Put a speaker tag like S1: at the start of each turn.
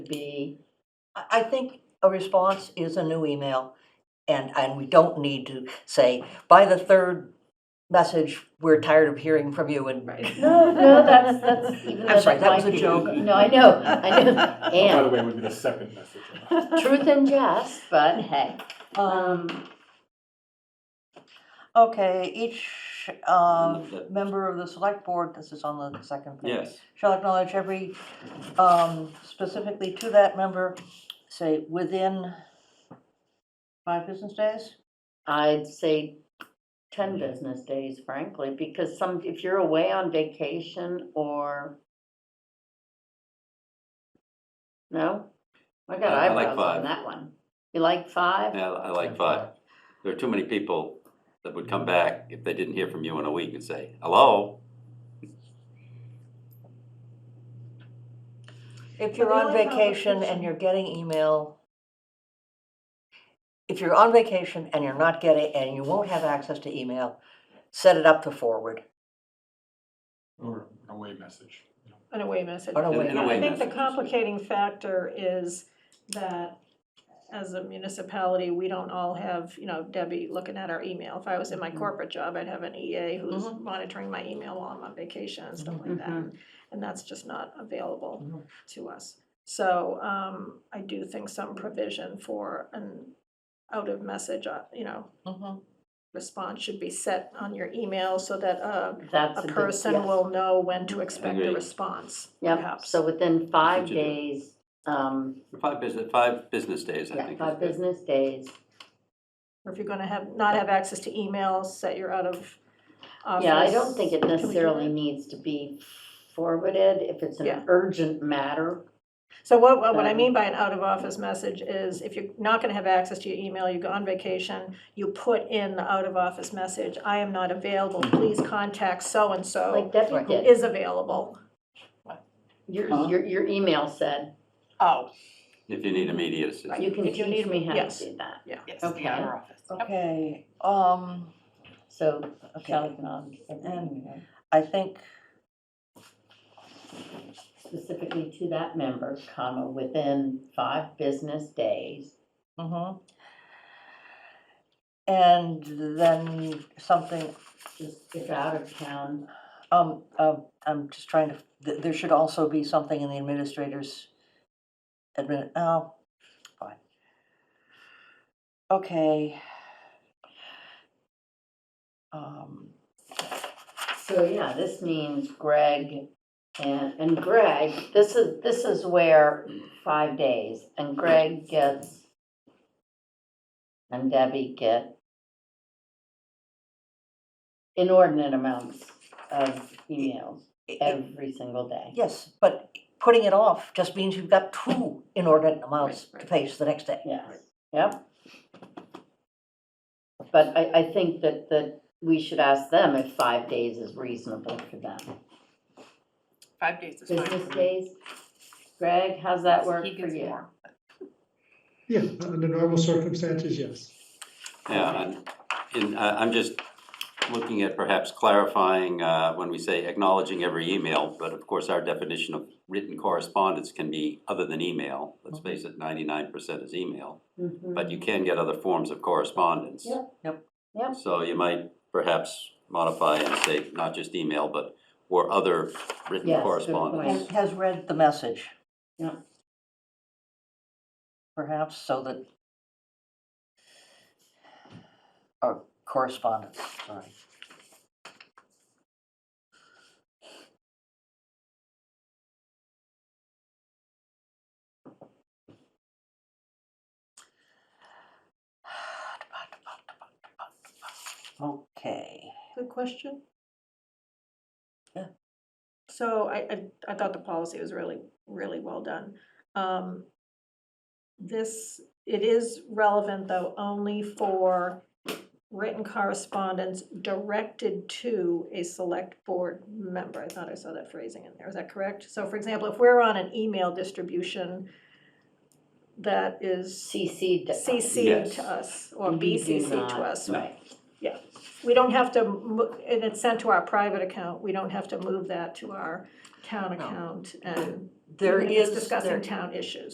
S1: be, I, I think a response is a new email. And, and we don't need to say, by the third message, we're tired of hearing from you and.
S2: Right.
S3: No, no, that's, that's even though
S1: I'm sorry,
S3: that
S1: that was
S3: might
S1: a
S3: be-
S1: joke.
S3: No, I know, I know,
S4: By the
S3: and
S4: way, it would be the second message.
S3: truth and jest, but hey.
S1: Um,
S3: Um,
S1: okay, each,
S5: That-
S1: um, member of the select board, this is on the second page.
S5: Yes,
S1: shall acknowledge every, um, specifically to that member, say, within five business days?
S3: I'd say ten business days, frankly, because some, if you're away on vacation or. No? I got
S5: I- I like
S3: eyebrows on
S5: five.
S3: that one. You like five?
S5: yeah, I like five. There are too many people that would come back if they didn't hear from you in a week and say, hello?
S1: If
S2: But
S1: you're
S2: the
S1: on
S2: only problem
S1: vacation
S2: is-
S1: and you're getting email, if you're on vacation and you're not getting, and you won't have access to email, set it up to forward.
S4: Or an away message. you know.
S2: An away message.
S1: An away
S5: In- in a
S2: I
S5: way
S2: think the
S5: message.
S2: complicating factor is that as a municipality, we don't all have, you know, Debbie looking at our email. If I was in my
S1: Mhm.
S2: corporate job, I'd have an EA who's
S1: Mhm.
S2: monitoring my email while I'm on vacation and stuff like that.
S3: Mhm.
S2: And that's just not available
S1: Mhm.
S2: to us. So um, I do think some provision for an out of message, uh, you know, response should be set on your email so that uh,
S3: That's
S2: a
S3: good-
S2: person
S3: yes.
S2: will know when to expect a
S5: Agreed.
S2: response,
S3: Yep,
S2: perhaps.
S3: so within five
S5: what you do.
S3: days, um,
S5: Five business, five business days, I
S3: yeah,
S5: think.
S3: five
S5: is good.
S3: business days.
S2: Or if you're gonna have, not have access to emails, set your out of office.
S3: Yeah, I don't think it
S2: Can we do
S3: necessarily
S2: that?
S3: needs to be forwarded if it's
S2: Yeah.
S3: an urgent matter.
S2: So what, what what I
S3: Um,
S2: mean by an out of office message is if you're not gonna have access to your email, you go on vacation, you put in the out of office message, I am not available, please contact so-and-so
S3: Like Debbie
S1: Right.
S3: did,
S2: Oh, is available.
S3: your,
S5: Huh?
S3: your, your email said,
S2: Oh.
S5: If you need immediate assistance.
S3: you can
S1: If you need
S3: teach me how
S2: yes.
S3: to do that.
S6: Yes,
S3: Okay.
S6: the outer office.
S1: Okay, um,
S3: So shall
S1: okay,
S3: acknowledge every
S1: And-
S3: email
S1: I think,
S3: specifically to that member, comma, within five business days.
S1: mhm. And then something,
S3: Just if out of town,
S1: um, um, I'm just trying to, th- there should also be something in the administrator's admin, oh, fine. Okay. Um,
S3: So yeah, this means Greg and, and Greg, this is, this is where five days, and Greg gets, and Debbie get inordinate amounts of emails
S1: i- i-
S3: every single day.
S1: Yes, but putting it off just means you've got two inordinate amounts to
S2: right.
S1: face the next day.
S3: Yes, yep. But I, I think that, that we should ask them if five days is reasonable for them.
S6: Five days is fine.
S3: Business
S6: for me.
S3: days, Greg, how's that work
S6: He
S3: for
S6: gives
S3: you?
S6: more.
S7: Yeah, under normal circumstances, yes.
S5: Yeah, and, and I- I'm just looking at perhaps clarifying, uh, when we say acknowledging every email, but of course, our definition of written correspondence can be other than email. Let's
S3: Mm-hmm.
S5: face it, ninety-nine percent is email, but you can get other forms of correspondence.
S3: Yep.
S1: Yep.
S3: Yep.
S5: So you might perhaps modify and say not just email, but, or other
S3: Yes,
S5: written
S3: good
S5: correspondence.
S1: And has read the message.
S3: Yeah.
S1: Perhaps so that, or correspondence, sorry. Okay.
S2: Good question.
S1: Yeah.
S2: So I, I, I thought the policy was really, really well done. Um, This, it is relevant though only for written correspondence directed to a select board member. I thought I saw that phrasing in there. Is that correct? So for example, if we're on an email distribution that is
S3: CC. to us.
S2: CC
S5: Yes.
S2: to us or
S3: We do
S2: BCC
S3: not-
S2: to us,
S3: Right.
S2: we don't have to, mo- and it's sent to our private account, we don't have to move that to our town account and
S1: There
S2: even if it's
S1: is,
S2: discussing
S1: there
S2: town issues.